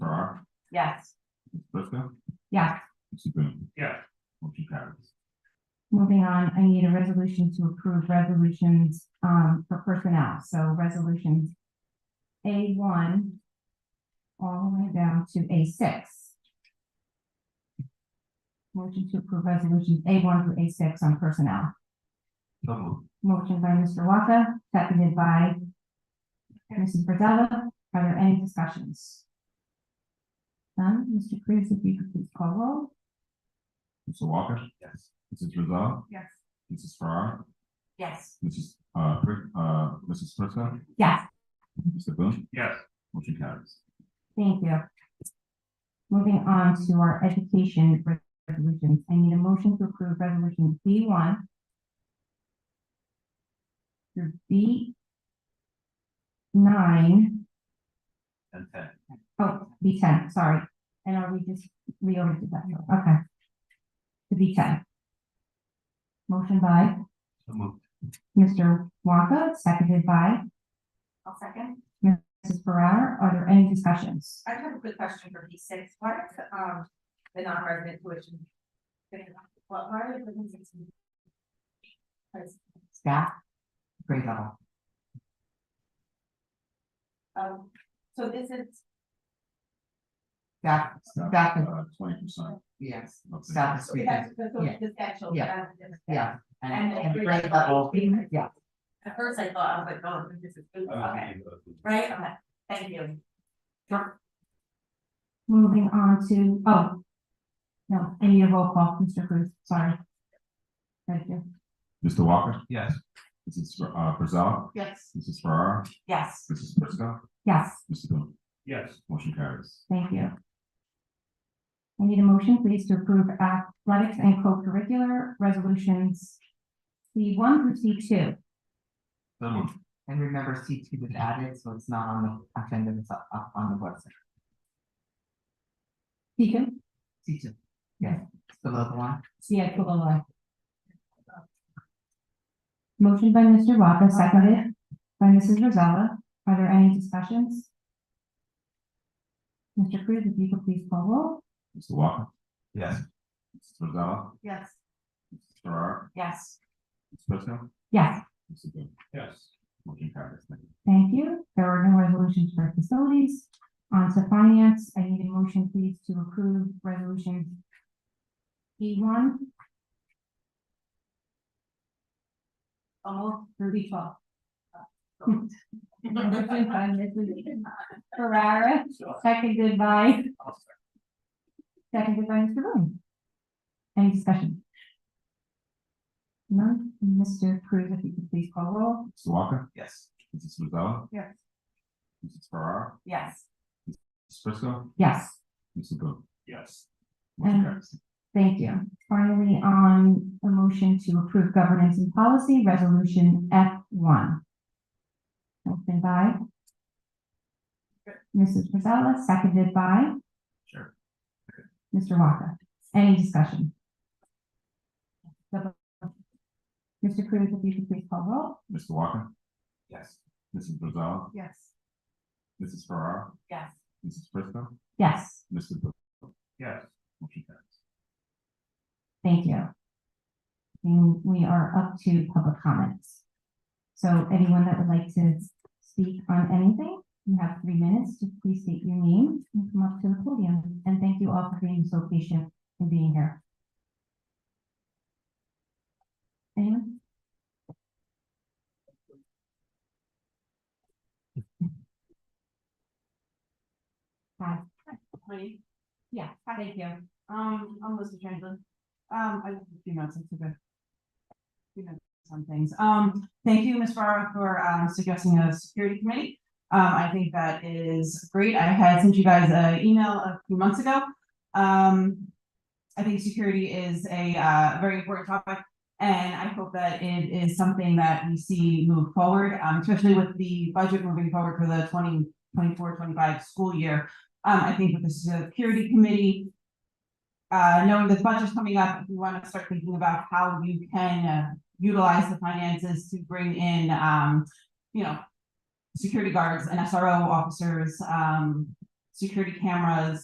Yes. Ms. Prisco, Yeah, Mrs. Green, yeah, motion carries. moving on, I need a resolution to approve resolutions um for personnel, so resolutions. A one. All the way down to A six. Motion to approve resolutions A one through A six on personnel. So moved. Motion by Mr. Walker, seconded by. Mrs. Brazella, are there any discussions? None, Mr. Cruz, if you could please call roll. Mr. Walker? Yes. Mrs. Rizal, Yes. Mrs. Farrar, Yes. Mrs. Uh, Pri- uh, Mrs. Prisco, Yes. Mr. Boone, yes, motion carries. Thank you. Moving on to our education resolutions, I need a motion to approve resolution B one. Through B. Nine, And ten. oh, B ten, sorry, and are we just, we already did that, okay. To B ten. Motion by So moved. Mr. Waka, seconded by I'll second. Mrs. Ferrara, are there any discussions? I have a quick question for P six. Why is, um, the non-resident tuition? What, why are the ones that's- Staff? Grade level. Um, so this is, That, Staff, Back and- uh, twenty percent. yes, of the- staff Okay. is speaking, that's, that's what this actual. Yeah. yeah, and, And- and grade level, yeah, At first I thought, I was like, oh, this is, good. Uh-huh. okay, right, okay, thank you. Moving on to, oh. No, I need a roll call, Mr. Cruz, sorry. Thank you. Mr. Walker? Yes. Mrs. Fr- Uh, Rizal, yes, Mrs. Farrar, Yes, Mrs. Prisco, Yes, Mr. Boone, yes, motion carries. thank you. I need a motion, please, to approve athletics and co-curricular resolutions. C one through C two. So moved. and remember C two was added, so it's not on the agenda, it's up, up on the website. Deacon, C two, yes, it's below the one, C I double I. Motion by Mr. Waka, seconded by Mrs. Rosella. Are there any discussions? Mr. Cruz, if you could please call roll. Mr. Walker? Yes. Mrs. Rizal, yes, Mrs. Farrar, yes, Mrs. Prisco, Yes. Mr. Boone, yes, motion carries. Thank you. Thank you. There are no resolutions for facilities. On to finance, I need a motion, please, to approve resolution E one. Almost thirty twelve. Motion by Mrs. Ferrara, seconded by. Seconded by Mr. Boone. Any discussion? None. Mr. Cruz, if you could please call roll. Mr. Walker? yes, Mrs. Rizal, Yes. Mrs. Farrar, yes, Mrs. Prisco, Yes. Mr. Boone, yes, motion And- carries. Thank you. Finally, on a motion to approve governance and policy, resolution F one. Motion by Mrs. Frizella, seconded by Sure. Mr. Walker. Any discussion? Mr. Cruz, if you could please call roll. Mr. Walker? yes, Mrs. Rizal, Yes. Mrs. Farrar, yes. Mrs. Prisco, Yes. Mr. Boone, yes. motion carries. Thank you. And we are up to public comments. So anyone that would like to speak on anything, you have three minutes to please state your name and come up to the podium. And thank you all for being so patient and being here. Anyone? Hi, Ready? yeah, thank you. Um, I'm Melissa Chamberlain. Um, I have a few notes, I took a few notes on things. Um, thank you, Ms. Farah, for um, suggesting a security committee. Um, I think that is great. I had sent you guys an email a few months ago. Um, I think security is a uh, very important topic, and I hope that it is something that we see move forward, um, especially with the budget moving forward for the 2024-25 school year. Um, I think with the security committee, uh, knowing the budget's coming up, if you want to start thinking about how you can uh, utilize the finances to bring in, um, you know, security guards and SRO officers, um, security cameras,